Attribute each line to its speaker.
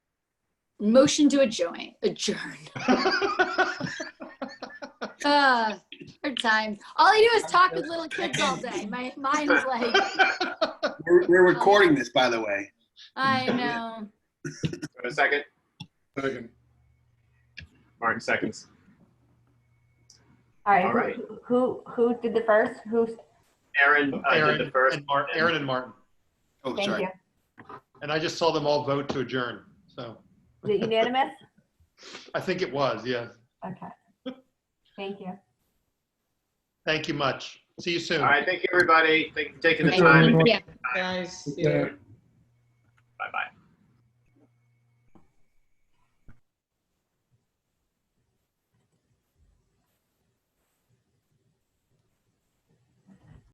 Speaker 1: Motion to adjourn. Adjourn. Uh, hard times. All I do is talk with little kids all day. My mind is like,
Speaker 2: We're, we're recording this, by the way.
Speaker 1: I know.
Speaker 3: Wait A second,
Speaker 4: Second.
Speaker 3: Martin seconds.
Speaker 5: All
Speaker 3: All
Speaker 5: right,
Speaker 3: right.
Speaker 5: who- who, who did the first? Who's,
Speaker 3: Aaron uh, did
Speaker 4: Aaron
Speaker 3: the first.
Speaker 4: and Mar-
Speaker 3: and-
Speaker 4: Aaron and Martin.
Speaker 2: Oh,
Speaker 5: thank
Speaker 2: sorry.
Speaker 5: you.
Speaker 4: And I just saw them all vote to adjourn. So
Speaker 5: Is it unanimous?
Speaker 4: I think it was, yes.
Speaker 5: Okay. Thank you.
Speaker 4: Thank you much. See you soon.
Speaker 3: All right, thank you, everybody. Thank you for taking the
Speaker 1: Thank
Speaker 3: time.
Speaker 1: you.
Speaker 6: Guys, yeah.